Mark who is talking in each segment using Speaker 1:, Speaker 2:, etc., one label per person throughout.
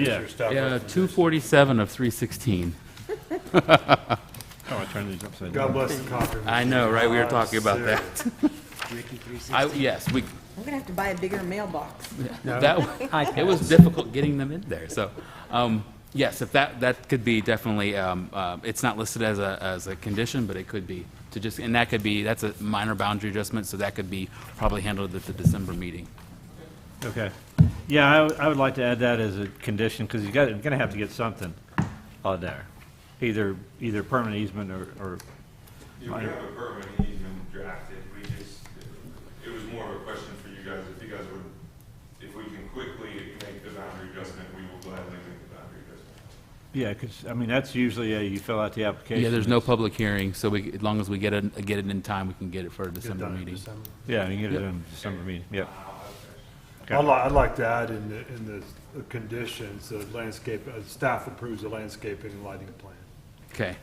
Speaker 1: Yeah.
Speaker 2: Yeah, 247 of 316.
Speaker 1: Oh, I turned these upside
Speaker 3: God
Speaker 1: down.
Speaker 3: bless the Uh, Concord.
Speaker 2: I know, right? We were talking about that. I, yes, we,
Speaker 4: We're gonna have to buy a bigger mailbox.
Speaker 2: that, it was difficult getting them in there, so, um, yes, if that, that could be definitely, um, uh, it's not listed as a, as a condition, but it could be, to just, and that could be, that's a minor boundary adjustment, so that could be probably handled at the December meeting.
Speaker 1: Okay. Yeah, I, would- I would like to add that as a condition, because you got, you're gonna have to get something on there. Either, either permanent easement or, or,
Speaker 5: Yeah, we have a permit easement drafted, we just, it was more of a question for you guys, if you guys would, if we can quickly make the boundary adjustment, we will gladly make the boundary adjustment.
Speaker 1: yeah, because, I mean, that's usually, uh, you fill out the application.
Speaker 2: Yeah, there's no public hearing, so we, as long as we get it, get it in time, we can get it for a
Speaker 3: Get
Speaker 2: December
Speaker 3: done in
Speaker 2: meeting.
Speaker 3: December.
Speaker 1: Yeah, you get it in December meeting, yep. Okay.
Speaker 3: I'd like, I'd like to add in the, in the the conditions, the landscape, uh, staff approves the landscaping and lighting plan.
Speaker 2: Okay,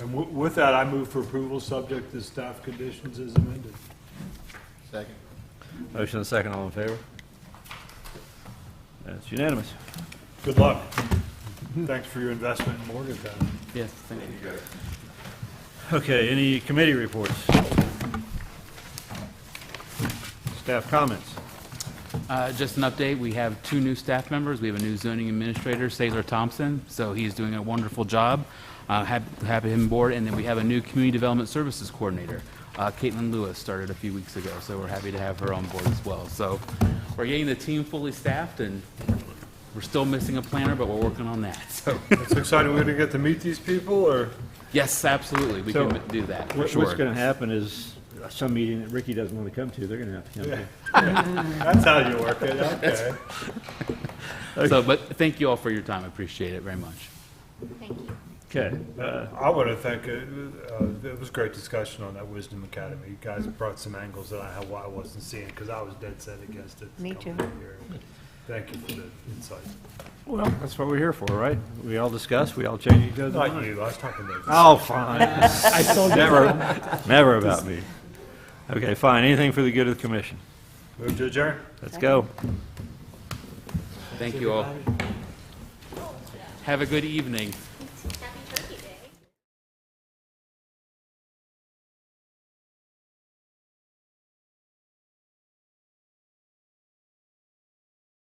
Speaker 3: And wi- with that, I move for approval, subject to staff conditions as amended.
Speaker 1: Motion and second, all in favor? That's unanimous.
Speaker 3: Good luck. Thanks for your investment in Morgantown.
Speaker 2: yes, thank you.
Speaker 1: Okay, any committee reports? Staff comments?
Speaker 2: Uh, Just an update, we have two new staff members. We have a new zoning administrator, Sailor Thompson, so he's doing a wonderful job. Uh, hap- Happy to have him aboard, and then we have a new community development services coordinator. Uh, Caitlin Lewis started a few weeks ago, so we're happy to have her on board as well. So we're getting the team fully staffed, and we're still missing a planner, but we're working on that, so.
Speaker 3: It's exciting, we're gonna get to meet these people, or?
Speaker 2: Yes, absolutely, we
Speaker 1: So,
Speaker 2: can do that, for
Speaker 1: What's
Speaker 2: sure.
Speaker 1: going to happen is uh, some meeting that Ricky doesn't want to come to, they're going to have to come to.
Speaker 3: That's how you work it, okay.
Speaker 2: So, but thank you all for your time, I appreciate it very much.
Speaker 1: Okay, uh,
Speaker 3: I want to thank, uh, uh, it was a great discussion on that Wisdom Academy. You guys
Speaker 4: Mm-hmm.
Speaker 3: brought some angles that I, had- I wasn't seeing, because I was dead set against it.
Speaker 4: Me
Speaker 3: coming
Speaker 4: too.
Speaker 3: in here. Thank you for the insight.
Speaker 1: well, that's what we're here for, right? We all discuss, we all change each other's
Speaker 3: Not
Speaker 1: minds.
Speaker 3: you, I was talking to.
Speaker 1: Oh, fine. Never, never about me. Okay, fine, anything for the good of the commission.
Speaker 3: Move to adjourn.
Speaker 1: Let's go.
Speaker 2: Thank you all. Have a good evening.